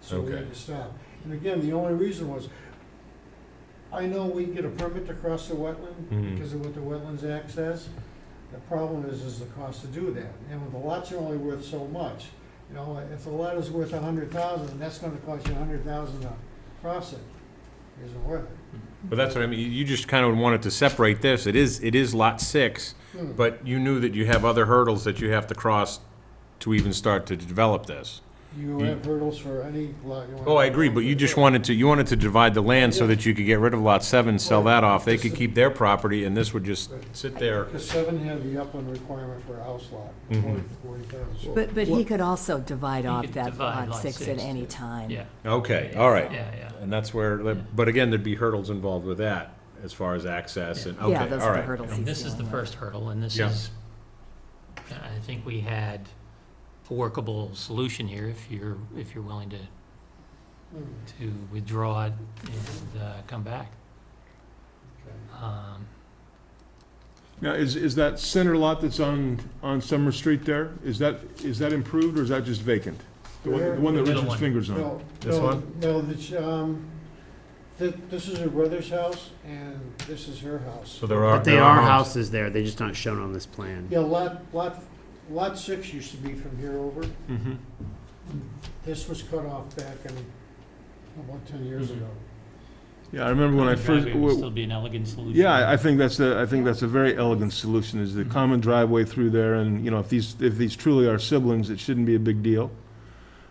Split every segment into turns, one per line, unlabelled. so we
Okay.
had to stop. And again, the only reason was, I know we get a permit to cross the wetland
Mhm.
because of what the Wetlands Act says. The problem is, is the cost to do that. And when the lots are only worth so much, you know, if the lot is worth a hundred thousand, that's gonna cost you a hundred thousand to cross it. Isn't worth it.
But that's what I mean, you- you just kind of wanted to separate this, it is, it is lot six,
Hmm.
but you knew that you have other hurdles that you have to cross to even start to develop this.
You
You-
have hurdles for any lot you want.
Oh, I agree, but you just wanted to, you wanted to divide the land so that you could get rid of lot seven, sell that off, they could keep their property, and this would just sit there.
Because seven had the upland requirement for a house lot,
Mm-hmm.
forty, forty thousand.
But, but he
What-
could also divide
He
off
could
that
divide
lot
lot
six at
six,
any
yeah.
time.
Yeah,
Okay, all right.
yeah, yeah.
And that's where, but again, there'd be hurdles involved with that, as far as access and, okay, all
Yeah,
right.
those are the hurdles
And
he's
this is the
dealing with.
first hurdle, and this
Yeah.
is, I think we had a workable solution here, if you're, if you're willing to,
Hmm.
to withdraw it and uh, come back. Um,
Now, is, is that center lot that's on, on Summer Street there, is that, is that improved or is that just vacant? The one, the one that
The middle
Richard's
one.
fingers on?
No,
This
no,
one?
No, this, um, thi- this is her brother's house, and this is her house.
So there are.
But they
there
are houses there, they're just not shown on this plan.
Yeah, lot, lot, lot six used to be from here over.
Mhm.
This was cut off back in, about ten years
Mm-hmm.
Mhm.
ago.
Yeah, I remember when I first,
driveway would Still be an elegant solution.
yeah, I- I think that's the, I think that's a very elegant solution, is the
Mm-hmm.
Mhm.
common driveway through there, and, you know, if these, if these truly are siblings, it shouldn't be a big deal.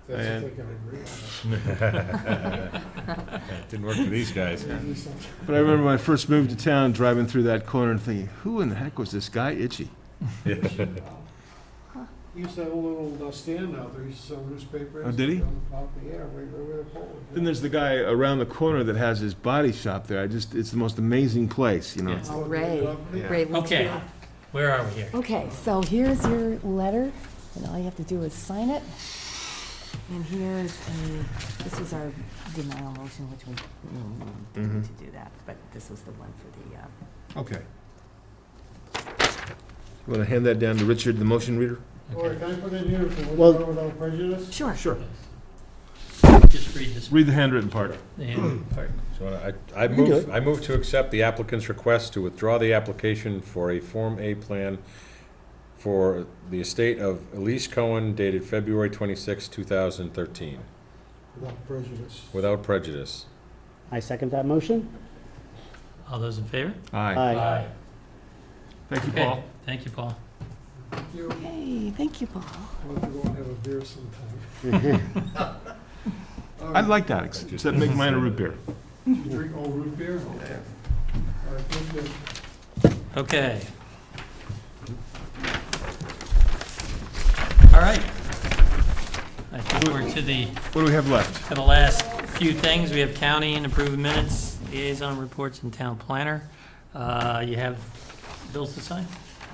That's if
And-
they can agree on
Didn't work for these guys.
it.
But I remember when I first moved to town, driving through that corner and thinking, who in the heck was this guy Itchy?
He used to have a little uh, stand out there, he used to sell newspapers.
Oh, did he?
On the top of the air, right right where the pole was.
Then there's the guy around the corner that has his body shop there, I just, it's the most amazing place, you know?
Yeah.
Oh, good
Ray.
company.
Yeah.
Great, let's
Okay,
do-
where are we here?
Okay, so here's your letter, and all you have to do is sign it. And here's a, this was our denial motion, which we mm,
Mm-hmm.
didn't need to do that, but this was the one for the, uh,
Okay. You want to hand that down to Richard, the motion reader?
Or can I put in here for
Well-
withdraw without prejudice?
sure.
Sure.
Just read this,
Read the handwritten part.
yeah, part.
So uh, I, I
You can do
move, I move to accept the applicant's request to withdraw the application for a Form A plan for the estate of Elise Cohen dated February twenty-six, two thousand thirteen,
Without prejudice.
without prejudice.
I second that motion.
all those in favor?
Aye.
Aye.
Thank you,
Okay,
Paul.
Thank you, Paul.
You
Okay, thank you, Paul.
want to go and have a beer sometime. All
I
right.
like that, except except make mine a root beer.
You drink all root beer? All right, good, good.
Okay. All right. I think we're to the,
What do we have left?
to the last few things. We have county and approved minutes, liaison reports, and town planner. Uh, You have bills to sign?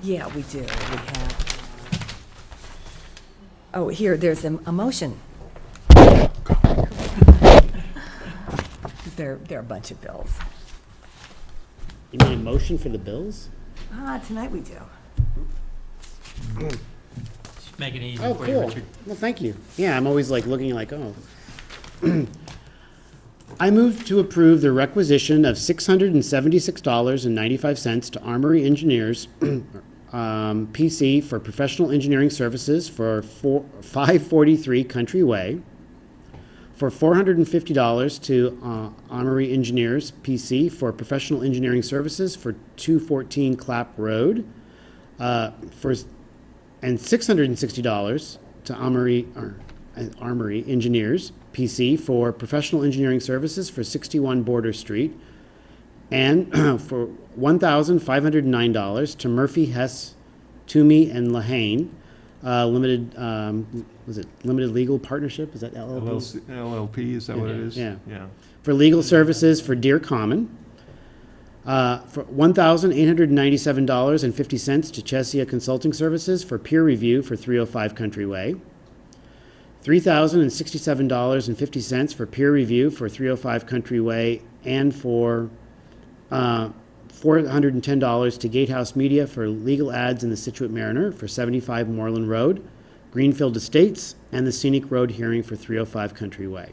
Yeah, we do, we have. Oh, here, there's a, a motion. There, there are a bunch of bills.
You mean a motion for the bills?
Ah, tonight we do.
Just Make it easy
Oh,
for you,
cool.
Richard.
Well, thank you. Yeah, I'm always like looking like, oh. I move to approve the requisition of six hundred and seventy-six dollars and ninety-five cents to Armory Engineers, um, PC for professional engineering services for four, five forty-three Country Way. For four hundred and fifty dollars to, uh, Armory Engineers, PC for professional engineering services for two fourteen Clap Road. Uh, for s- and six hundred and sixty dollars to Armory, or, uh, Armory Engineers PC for professional engineering services for sixty-one Border Street, and for one thousand five hundred and nine dollars to Murphy Hess, Toomey and Lahane, uh, limited, um, was it limited legal partnership? Is that LLP?
LLC LLP, is that what it is?
Yeah.
Yeah.
for legal services for Deer Common, uh, for one thousand eight hundred ninety-seven dollars and fifty cents to Chesia Consulting Services for peer review for three oh five Country Way, three thousand and sixty-seven dollars and fifty cents for peer review for three oh five Country Way, and for uh, four hundred and ten dollars to Gatehouse Media for legal ads in the Situate Mariner for seventy-five Moreland Road, Greenfield Estates, and the Scenic Road hearing for three oh five Country Way.